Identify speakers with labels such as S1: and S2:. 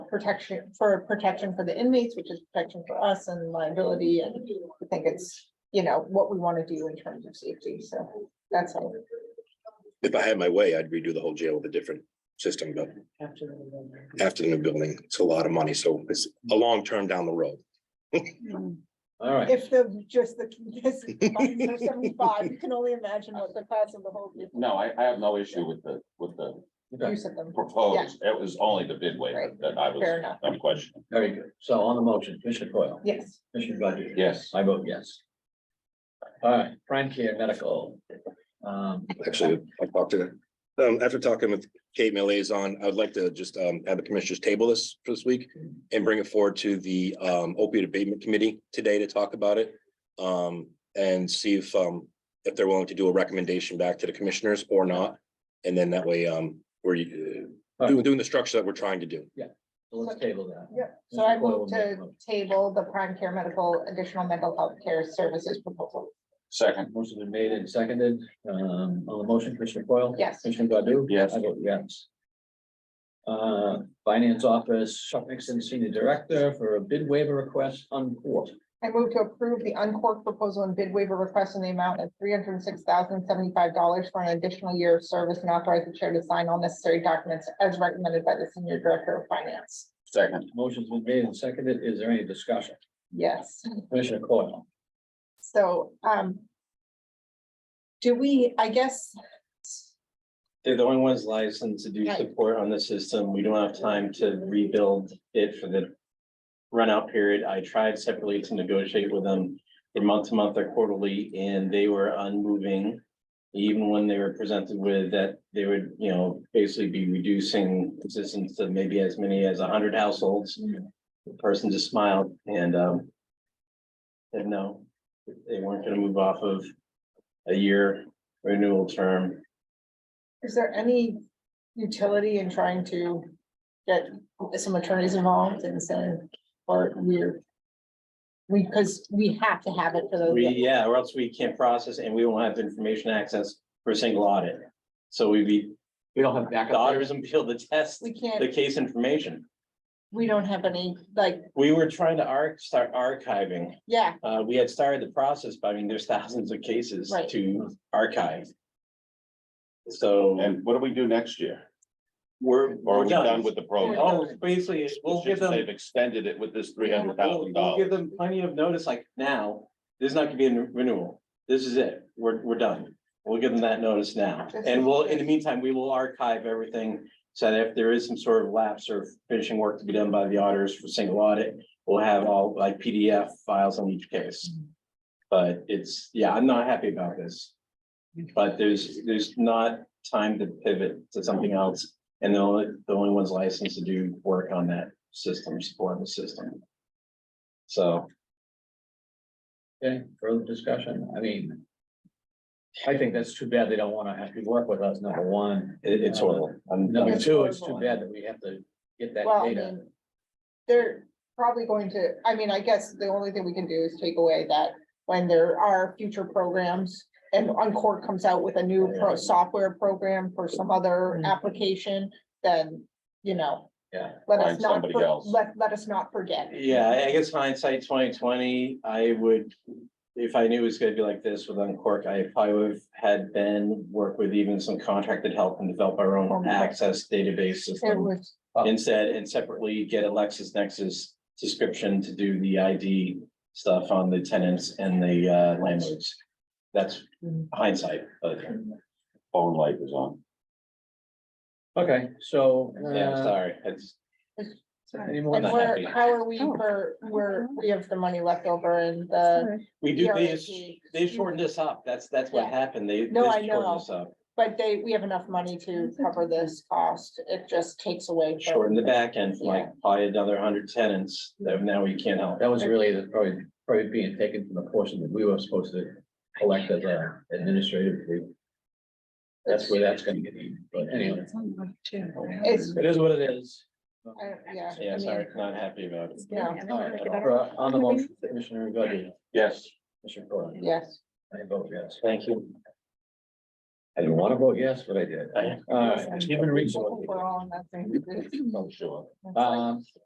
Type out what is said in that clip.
S1: protection, for protection for the inmates, which is protection for us and liability, and I think it's, you know, what we want to do in terms of safety, so that's all.
S2: If I had my way, I'd redo the whole jail with a different system, but after the new building, it's a lot of money, so it's a long term down the road.
S3: All right,
S1: If the, just the, just funds are seventy-five, you can only imagine what the cost of the whole
S4: No, I, I have no issue with the, with the
S1: use of them,
S4: proposed, it was only the bid waiver
S1: Right.
S4: that I
S1: fair
S4: was,
S1: enough,
S4: I'm questioning.
S3: very good. So on the motion, Commissioner Coyle,
S1: yes.
S3: Commissioner Godu.
S4: Yes,
S3: I vote yes. All right, Prime Care Medical. Um,
S2: Actually, I talked to, um, after talking with Kate, my liaison, I would like to just, um, have the commissioners table this for this week and bring it forward to the, um, opioid abatement committee today to talk about it. Um, and see if, um, if they're willing to do a recommendation back to the commissioners or not. And then that way, um, we're uh, doing, doing the structure that we're trying to do.
S3: so let's table that.
S1: Yep, so I
S3: Mr. Coyle
S1: move
S3: will make a
S1: to
S3: motion.
S1: table the prime care medical additional mental health care services proposal.
S4: second,
S3: Motion's been made and seconded, um, on the motion, Commissioner Coyle.
S1: Yes.
S3: Commissioner Godu.
S4: Yes.
S3: I vote yes. Uh, Finance Office, Chuck Nixon, Senior Director for a bid waiver request on court.
S1: I move to approve the Uncork proposal and bid waiver request in the amount of three hundred and six thousand seventy-five dollars for an additional year of service and authorize the chair to sign all necessary documents as recommended by the senior director of finance.
S4: second,
S3: Motion's been made and seconded. Is there any discussion?
S1: Yes,
S3: Commissioner Coyle.
S1: so, um. Do we, I guess,
S5: They're the only ones licensed to do
S1: Right.
S5: support on the system. We don't have time to rebuild it for the. Runout period. I tried separately to negotiate with them. They're month to month or quarterly and they were unmoving. Even when they were presented with that, they would, you know, basically be reducing assistance to maybe as many as hundred households. The person just smiled and um. Said no, they weren't gonna move off of a year renewal term.
S1: is there any utility in trying to get some attorneys involved and saying, or we're. We, because we have to have it for those.
S5: We, yeah, or else we can't process and we won't have information access for a single audit. So we'd be,
S3: We don't have
S5: the auditors and be able to test
S1: We can't,
S5: the case information.
S1: we don't have any, like,
S5: We were trying to arch, start archiving.
S1: yeah,
S5: Uh, we had started the process, but I mean, there's thousands of cases
S1: Right.
S5: to archive. So
S4: and what do we do next year?
S5: we're,
S4: Or are
S5: we're
S4: we done
S5: done.
S4: with the program?
S5: Oh, basically, we'll
S4: It's
S5: give
S4: just
S5: them.
S4: They've extended it with this three hundred
S5: We'll
S4: thousand
S5: we'll
S4: dollars.
S5: Give them plenty of notice, like now, there's not gonna be a renewal. This is it. We're, we're done. We'll give them that notice now. And we'll, in the meantime, we will archive everything. So that if there is some sort of lapse or finishing work to be done by the auditors for single audit, we'll have all like PDF files on each case. But it's, yeah, I'm not happy about this. But there's, there's not time to pivot to something else. And the only, the only ones licensed to do work on that system, support the system. So,
S3: Okay, further discussion. I mean. I think that's too bad. They don't want to have to work with us, number one.
S5: it, it's horrible. I'm,
S3: Number
S1: It's
S3: two, it's too
S1: horrible.
S3: bad that we have to get that
S1: well, I
S3: data.
S1: mean. They're probably going to, I mean, I guess the only thing we can do is take away that when there are future programs. And Encore comes out with a new pro, software program for some other
S3: Mm.
S1: application, then, you know.
S3: Yeah.
S1: Let us
S4: Find
S1: not,
S4: somebody
S1: for-
S4: else.
S1: let, let us not forget.
S5: yeah, I- I guess hindsight twenty twenty, I would, if I knew it was gonna be like this with Uncork, I probably would have had Ben work with even some contracted help and develop our own access database
S1: It
S5: system.
S1: was,
S5: Instead, and separately get a LexisNexis subscription to do the ID stuff on the tenants and the uh, landlords. That's
S1: Mm-hmm.
S5: hindsight, but
S4: Phone light is on.
S3: Okay, so.
S5: yeah,
S3: uh,
S5: sorry, it's.
S3: Any more?
S1: and
S5: not
S1: we're,
S5: happy.
S1: how are we
S6: Oh.
S1: for, we're, we have the money left over in the.
S5: We do, they,
S1: PRAP.
S5: they shortened this up. That's, that's what
S1: Yeah.
S5: happened. They.
S1: No,
S5: they
S1: I
S5: shortened
S1: know.
S5: us up.
S1: But they, we have enough money to cover this cost. It just takes away. from-
S5: Shortened the back end for like probably another hundred tenants that now we can't help.
S3: That was really the- probably, probably being taken from the portion that we were supposed to collect as a administrative. fee. That's where that's gonna get eaten, but anyway,
S1: It's,
S3: it is what it is.
S1: I don't- yeah. I
S5: Yeah,
S1: mean,
S5: sorry, not happy about it.
S1: Yeah.
S3: For- uh, On the motion, Commissioner Godu,
S4: Yes,
S3: Commissioner Coyle,
S1: Yes,
S3: I vote yes.
S5: Thank you.
S3: I didn't want to vote yes, but I did.
S5: I-
S3: All right, human resources.
S1: we're all in that same.
S4: I'm sure.
S3: Um,